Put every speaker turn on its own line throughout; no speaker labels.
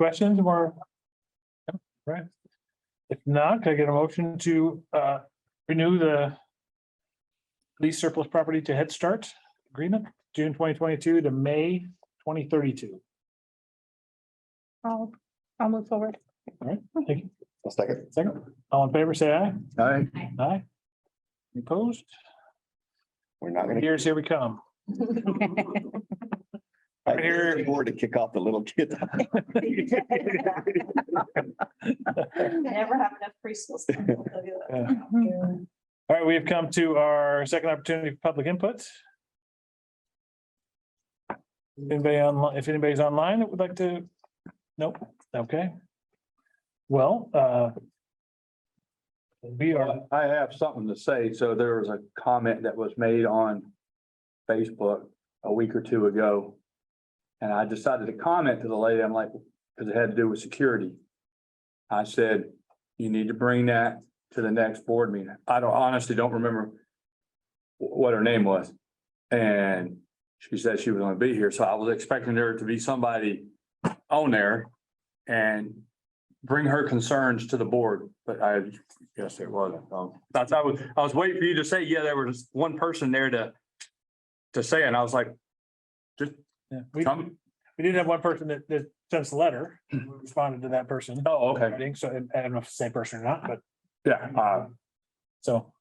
Questions more? No, Right. If not, can I get a motion to uh, renew the lease surplus property to Head Start agreement, June twenty twenty-two to May twenty thirty-two?
I'll, I'll move forward.
Thank you.
I'll second.
Second, all in favor, say aye.
Aye.
Aye. Any Opposed?
We're not gonna.
Here's, here we come.
I
Here.
hear more to kick off the little kid.
Never have enough preschool. stuff, I'll tell you that.
Uh,
Mm-hmm.
All right, we have come to our second opportunity for public input. Anybody online, if anybody's online that would like to, nope, okay. Well, uh. We are,
I have something to say. So there was a comment that was made on Facebook a week or two ago. And I decided to comment to the lady, I'm like, because it had to do with security. I said, you need to bring that to the next board meeting. I don't honestly don't remember wh- what her name was. And she said she was gonna be here, so I was expecting there to be somebody on there and bring her concerns to the board, but I Yes, it was. Um, that's, I was, I was waiting for you to say, yeah, there was one person there to, to say, it, and I was like,
yeah, we,
come,
we did have one person that, that sent us a letter, We responded to that person.
oh, okay,
I So I don't know if it's the same person or not, but
yeah, uh,
so,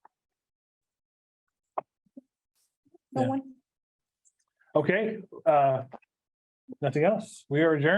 No
Yeah.
one
okay, uh. Nothing else. We are adjourned.